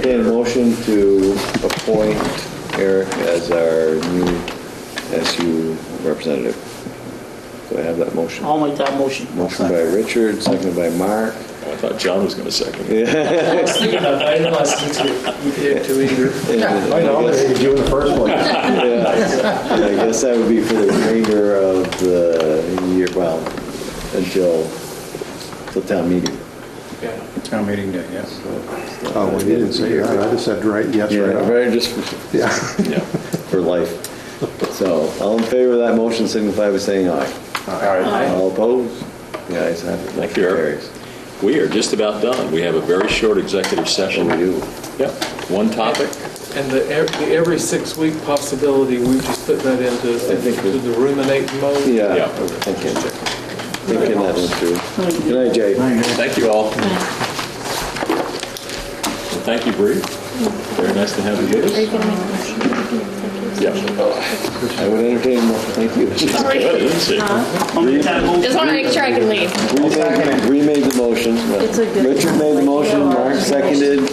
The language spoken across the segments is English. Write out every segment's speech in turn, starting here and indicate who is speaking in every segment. Speaker 1: motion to appoint Eric as our new SU representative. Do I have that motion?
Speaker 2: I'll make that motion.
Speaker 1: Motion by Richard, seconded by Mark.
Speaker 3: I thought John was going to second. it.
Speaker 4: I was thinking about that, I didn't want to see two. You did two either.
Speaker 1: And
Speaker 5: I
Speaker 1: I
Speaker 5: know,
Speaker 1: guess-
Speaker 5: they do in the first place.
Speaker 1: yeah, I guess that would be for the remainder of the year, well, until, until town meeting.
Speaker 6: Town meeting day, yes.
Speaker 5: Oh, well, you didn't say that, I just said right, yes,
Speaker 1: Yeah,
Speaker 5: right off.
Speaker 1: right, just
Speaker 5: Yeah.
Speaker 3: Yeah.
Speaker 1: for life. So, all in favor of that motion, signify by saying aye. All opposed? The ayes have it.
Speaker 3: Thank you, Eric.
Speaker 1: Carries.
Speaker 3: We are just about done. We have a very short executive
Speaker 1: And
Speaker 3: session.
Speaker 1: we do.
Speaker 3: Yep, one topic.
Speaker 4: And the ev- the every six-week possibility, we just put that into
Speaker 1: I think we-
Speaker 4: to the ruminate mode.
Speaker 1: Yeah,
Speaker 3: Yeah.
Speaker 1: I was thinking, thinking that one through. Good night, Jay.
Speaker 3: Thank you all. Thank you, Bree. Very nice to have you with us.
Speaker 7: Are you gonna make a motion?
Speaker 3: Yeah.
Speaker 1: I would entertain, a mo- thank you.
Speaker 3: She's good, isn't she?
Speaker 2: I'll make that motion.
Speaker 7: Just want to make sure I can leave.
Speaker 1: We made- We made the motion.
Speaker 7: It's a good-
Speaker 1: Richard made the motion, Mark seconded.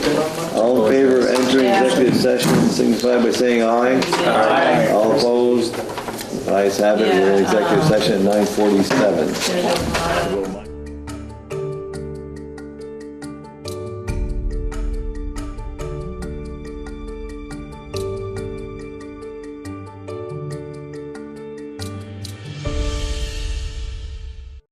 Speaker 1: All in favor of entering
Speaker 7: Yeah.
Speaker 1: executive session, signify by saying aye. Aye. All opposed? The ayes have it, we're in executive session at 9:47.